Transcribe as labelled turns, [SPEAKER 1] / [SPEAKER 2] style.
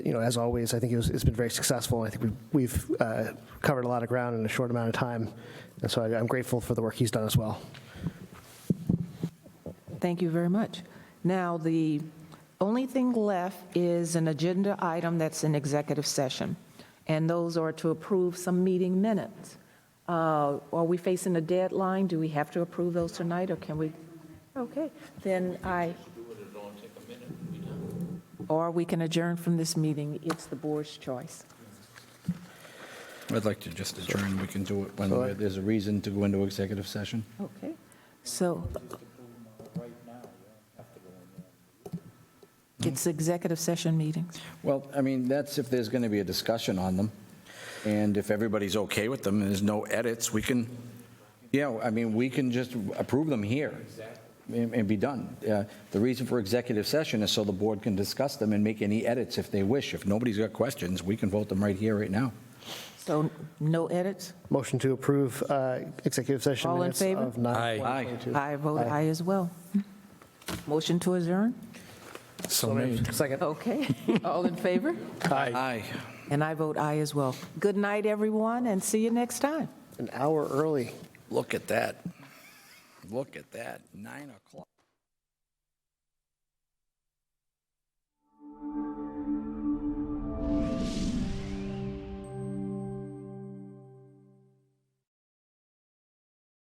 [SPEAKER 1] you know, as always, I think it was, it's been very successful. I think we've, we've uh, covered a lot of ground in a short amount of time, and so I- I'm grateful for the work he's done as well.
[SPEAKER 2] Thank you very much. Now, the only thing left is an agenda item that's in executive session, and those are to approve some meeting minutes. Uh, Are we facing a deadline? Do we have to approve those tonight, or can we? Okay, then I. Or we can adjourn from this meeting. It's the board's choice.
[SPEAKER 3] I'd like to just adjourn, we can do it when there's a reason to go into executive session.
[SPEAKER 2] Okay, so. It's executive session meetings.
[SPEAKER 3] Well, I mean, that's if there's going to be a discussion on them, and if everybody's okay with them, and there's no edits, we can, yeah, I mean, we can just approve them here and and be done. Uh, The reason for executive session is so the board can discuss them and make any edits if they wish. If nobody's got questions, we can vote them right here, right now.
[SPEAKER 2] So no edits?
[SPEAKER 1] Motion to approve uh, executive session
[SPEAKER 2] All in
[SPEAKER 1] minutes
[SPEAKER 2] favor?
[SPEAKER 1] of 9.
[SPEAKER 3] Aye.
[SPEAKER 2] I vote aye as well. Motion to adjourn?
[SPEAKER 1] So moved. Second.
[SPEAKER 2] Okay, all in favor?
[SPEAKER 3] Aye.
[SPEAKER 2] And I vote aye as well. Good night, everyone, and see you next time.
[SPEAKER 1] An hour early.
[SPEAKER 3] Look at that. Look at that, 9 o'clock.